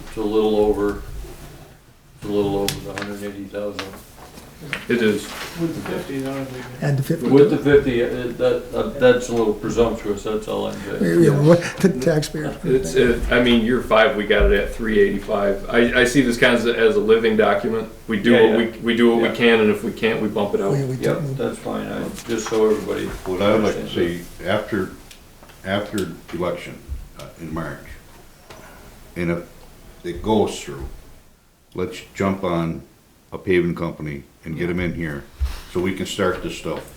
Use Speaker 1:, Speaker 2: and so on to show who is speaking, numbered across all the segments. Speaker 1: It's a little over, it's a little over the hundred and eighty thousand.
Speaker 2: It is.
Speaker 3: With the fifty, that would be good.
Speaker 4: And the fifty.
Speaker 1: With the fifty, uh, that, that- that's a little presumptuous, that's all I'm saying.
Speaker 4: Yeah, what the taxpayers.
Speaker 2: It's, it, I mean, year five, we got it at three eighty-five. I, I see this kind of as a living document. We do
Speaker 1: Yeah,
Speaker 2: what
Speaker 1: yeah.
Speaker 2: we, we do what
Speaker 1: Yeah.
Speaker 2: we can, and if we can't, we bump it
Speaker 4: oh, We-
Speaker 2: out.
Speaker 4: we
Speaker 1: Yep,
Speaker 4: don't-
Speaker 1: that's fine, I, just so everybody.
Speaker 5: What I'd like to see, after, after election uh, in March, and if it goes through, let's jump on a paving company and get them in here, so we can start this stuff.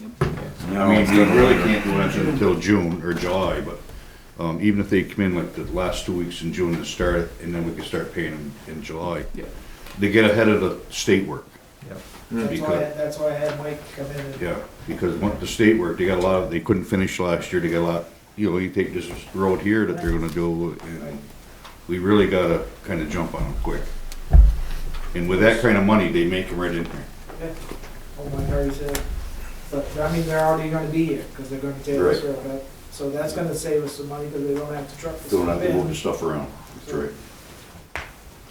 Speaker 5: I mean, we really can't do anything until June or July, but, um, even if they come in like the last two weeks in June to start, it, and then we can start paying them in July.
Speaker 2: Yeah.
Speaker 5: They get ahead of the state work.
Speaker 3: That's why,
Speaker 5: Because-
Speaker 3: that's why I had Mike come in and
Speaker 5: Yeah, because what the state work, they got a lot, of- they couldn't finish last year, they got a lot, you know, you take this road here that they're gonna do, and we really gotta kinda jump on them quick. And with that kinda money, they make them right in here.
Speaker 3: Oh, my Harry said, but, I mean, they're already gonna be here, because they're gonna tear this road up. So that's gonna save us some money, because they don't have to truck this
Speaker 5: Don't have
Speaker 3: stuff
Speaker 5: to move the
Speaker 3: in.
Speaker 5: stuff around, that's right.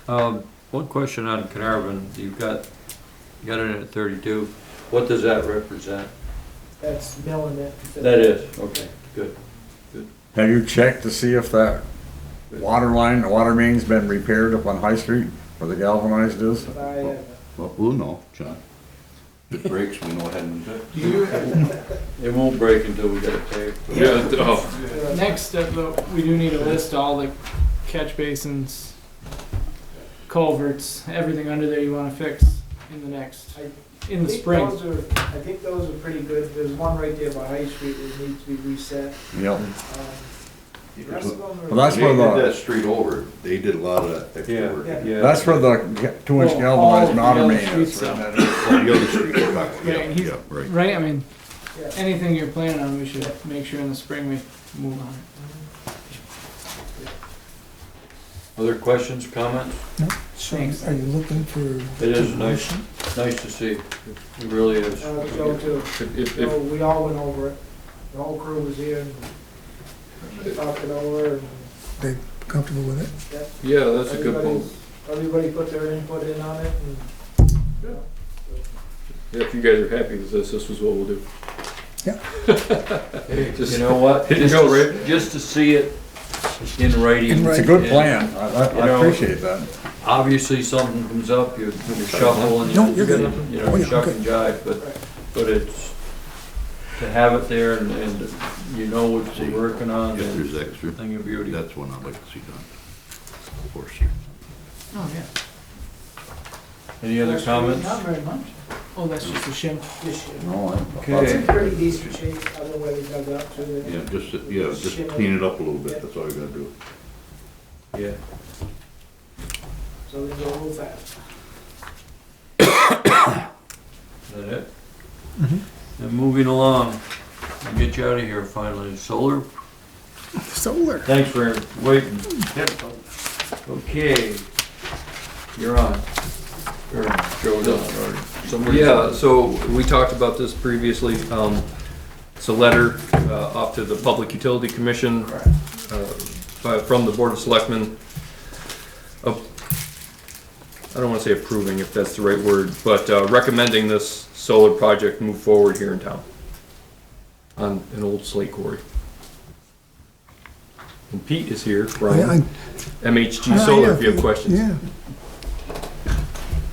Speaker 1: Um, one question on Carnarvon, you've got, you got it at thirty-two, what does that represent?
Speaker 3: That's milling it.
Speaker 1: That is, okay, good.
Speaker 6: Have you checked to see if that water line, the water main's been repaired up on High Street where the galvanized is?
Speaker 3: I, uh,
Speaker 5: Well, we'll know, John. If it breaks, we know it hadn't been
Speaker 3: Do you,
Speaker 1: It won't break until we get it paved.
Speaker 2: Yeah, oh,
Speaker 7: Next step, though, we do need to list all the catch basins, culverts, everything under there you wanna fix in the next,
Speaker 3: I
Speaker 7: in the
Speaker 3: think
Speaker 7: spring.
Speaker 3: those are, I think those are pretty good. There's one right there by High Street that needs to be reset.
Speaker 6: Yep.
Speaker 3: Um, The rest of them are.
Speaker 6: Well, that's
Speaker 5: They
Speaker 6: where
Speaker 5: did
Speaker 6: the,
Speaker 5: that street over, they did a lot of that extra work.
Speaker 6: that's where the two inch
Speaker 7: Well, all
Speaker 6: galvanized
Speaker 7: of the
Speaker 6: water
Speaker 7: other
Speaker 6: main
Speaker 7: streets,
Speaker 6: is.
Speaker 7: though.
Speaker 5: The other street, we're talking about,
Speaker 7: Yeah, and he's-
Speaker 5: yeah, right.
Speaker 7: Right, I mean,
Speaker 3: Yeah.
Speaker 7: anything you're planning on, we should make sure in the spring we move on it.
Speaker 1: Other questions, comments?
Speaker 4: So are you looking for?
Speaker 1: It is nice, nice to see, it really is.
Speaker 3: Uh, Joe too.
Speaker 2: if, if,
Speaker 3: So
Speaker 2: if,
Speaker 3: we all went over it. The whole crew was here and talked it over and
Speaker 4: They comfortable with it?
Speaker 2: yeah, that's a good
Speaker 3: everybody's-
Speaker 2: point.
Speaker 3: Everybody put their input in on it and.
Speaker 2: Yeah, If you guys are happy with this, this is what we'll do.
Speaker 1: Hey, You
Speaker 2: Just-
Speaker 1: know what?
Speaker 2: Hit
Speaker 1: Just
Speaker 2: go,
Speaker 1: to- Just to see it in writing.
Speaker 6: It's a
Speaker 1: and
Speaker 6: good plan. I, I-
Speaker 1: You know-
Speaker 6: I appreciate that.
Speaker 1: Obviously, something comes up, you you shuffle and
Speaker 4: No, you're
Speaker 1: you,
Speaker 4: good.
Speaker 1: you
Speaker 4: Oh,
Speaker 1: know,
Speaker 4: yeah,
Speaker 1: shuck
Speaker 4: okay.
Speaker 1: and jive, but, but it's, to have it there and, and you know what you're working on,
Speaker 5: If
Speaker 1: and
Speaker 5: there's extra,
Speaker 1: thing of beauty.
Speaker 5: that's one I'd like to see done. Of course.
Speaker 7: Oh, yeah.
Speaker 1: Any other
Speaker 3: Actually,
Speaker 1: comments?
Speaker 3: Not very much
Speaker 7: Oh, that's just a shim.
Speaker 3: this year.
Speaker 6: No, I-
Speaker 3: It's
Speaker 1: Okay.
Speaker 3: in pretty decent shape, other way we dug up to
Speaker 5: Yeah,
Speaker 3: it.
Speaker 5: just, yeah, just clean it up a little bit, that's all you gotta do.
Speaker 1: Yeah.
Speaker 3: So we go a little fast.
Speaker 1: Is that it?
Speaker 4: Mm-hmm.
Speaker 1: And moving along, I'll get you out of here finally. Solar,
Speaker 4: Solar.
Speaker 1: thanks for waiting. Okay, you're on. Or Joe's on, or somebody.
Speaker 2: Yeah, so we talked about this previously. Um, It's a letter uh, off to the Public Utility Commission uh, by- from the Board of Selectmen. Ap- I don't want to say approving, if that's the right word, but uh, recommending this solar project move forward here in town on an old slate quarry. And Pete is here
Speaker 4: I- I-
Speaker 2: from MHG Solar, if you have questions.
Speaker 4: Yeah,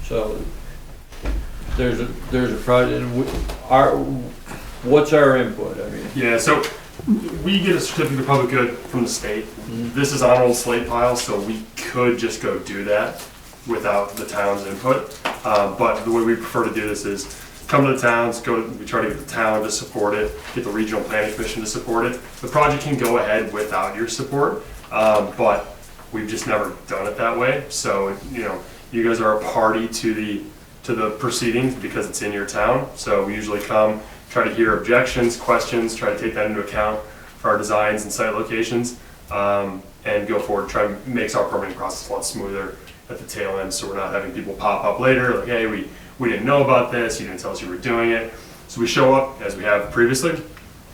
Speaker 1: So, there's a, there's a project, and we, our, what's our input? I mean,
Speaker 8: Yeah, so we get a certificate of public good from the state. This is on an old slate pile, so we could just go do that without the town's input. Uh, but the way we prefer to do this is come to the towns, go, we try to get the town to support it, get the regional planning commission to support it. The project can go ahead without your support, um, but we've just never done it that way. So, you know, you guys are a party to the, to the proceedings because it's in your town. So we usually come, try to hear objections, questions, try to take that into account for our designs and site locations, um, and go forward, try and makes our permitting process a lot smoother at the tail end, so we're not having people pop up later, like, hey, we, we didn't know about this, you didn't tell us you were doing it. So we show up, as we have previously,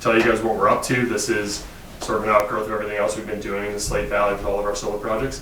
Speaker 8: tell you guys what we're up to, this is sort of an outgrowth of everything else we've been doing in the Slate Valley with all of our solar projects.